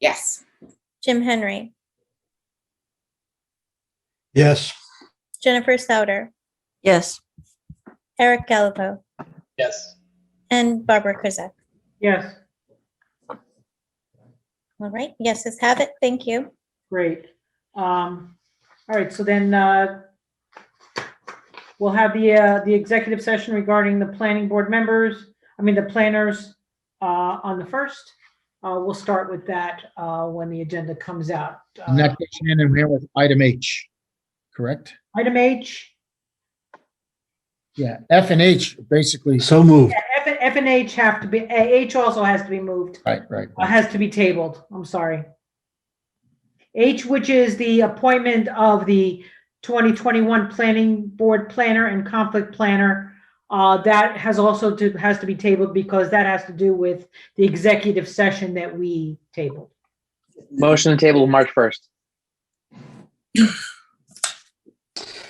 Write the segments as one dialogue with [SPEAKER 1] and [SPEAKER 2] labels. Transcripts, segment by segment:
[SPEAKER 1] Yes.
[SPEAKER 2] Jim Henry,
[SPEAKER 3] Yes.
[SPEAKER 2] Jennifer Sauter,
[SPEAKER 4] Yes.
[SPEAKER 2] Eric Gallivo,
[SPEAKER 5] Yes.
[SPEAKER 2] and Barbara Krizak.
[SPEAKER 6] Yes,
[SPEAKER 2] All right, yeses have it. Thank you.
[SPEAKER 6] great. Um, all right, so then, uh, we'll have the, uh, the executive session regarding the planning board members, I mean, the planners, uh, on the first. Uh, we'll start with that, uh, when the agenda comes out. Uh,
[SPEAKER 7] And that goes hand in hand with item H, correct?
[SPEAKER 6] Item H,
[SPEAKER 7] Yeah, F and H basically,
[SPEAKER 3] So moved.
[SPEAKER 6] F, F and H have to be, A- H also has to be moved.
[SPEAKER 7] right, right.
[SPEAKER 6] uh, has to be tabled, I'm sorry. H, which is the appointment of the 2021 Planning Board Planner and Conflict Planner. uh, That has also to, has to be tabled because that has to do with the executive session that we tabled.
[SPEAKER 5] Motion to table March 1st.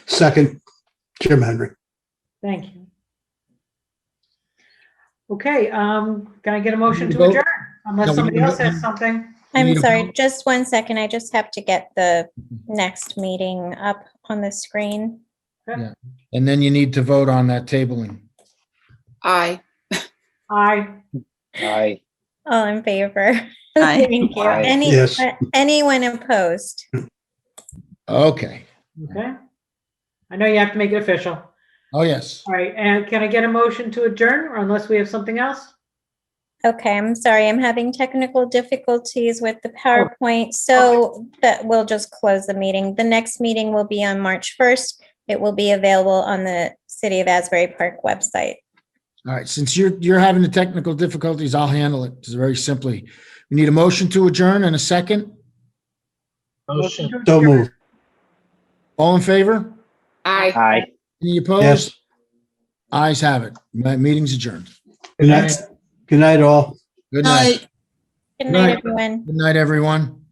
[SPEAKER 3] Second, Jim Henry.
[SPEAKER 6] Thank you. Okay, um, can I get a motion to
[SPEAKER 7] Vote.
[SPEAKER 6] adjourn?
[SPEAKER 7] No,
[SPEAKER 6] Unless
[SPEAKER 7] we
[SPEAKER 6] somebody
[SPEAKER 7] need to
[SPEAKER 6] else has
[SPEAKER 7] vote.
[SPEAKER 6] something.
[SPEAKER 2] I'm
[SPEAKER 7] Need a
[SPEAKER 2] sorry,
[SPEAKER 7] vote?
[SPEAKER 2] just one second. I just have to get the next meeting up on the screen.
[SPEAKER 7] And then you need to vote on that tabling.
[SPEAKER 1] Aye.
[SPEAKER 6] Aye,
[SPEAKER 5] Aye.
[SPEAKER 2] All in favor?
[SPEAKER 4] Aye.
[SPEAKER 2] Thank you.
[SPEAKER 5] Aye.
[SPEAKER 2] Any,
[SPEAKER 3] Yes.
[SPEAKER 2] uh, anyone opposed?
[SPEAKER 7] Okay.
[SPEAKER 6] okay. I know you have to make it official.
[SPEAKER 7] Oh, yes.
[SPEAKER 6] All right, and can I get a motion to adjourn or unless we have something else?
[SPEAKER 2] Okay, I'm sorry. I'm having technical difficulties with the PowerPoint, so that we'll just close the meeting. The next meeting will be on March 1st. It will be available on the City of Asbury Park website.
[SPEAKER 7] All right, since you're, you're having the technical difficulties, I'll handle it very simply. We need a motion to adjourn and a second.
[SPEAKER 5] Motion.
[SPEAKER 3] So moved.
[SPEAKER 7] All in favor?
[SPEAKER 1] Aye.
[SPEAKER 5] Aye.
[SPEAKER 7] Any
[SPEAKER 3] Yes.
[SPEAKER 7] opposed? Eyes have it. My meeting's adjourned.
[SPEAKER 3] Good night. Good night, all.
[SPEAKER 7] Good night. Night.
[SPEAKER 2] Good night, everyone.
[SPEAKER 7] Good night, everyone.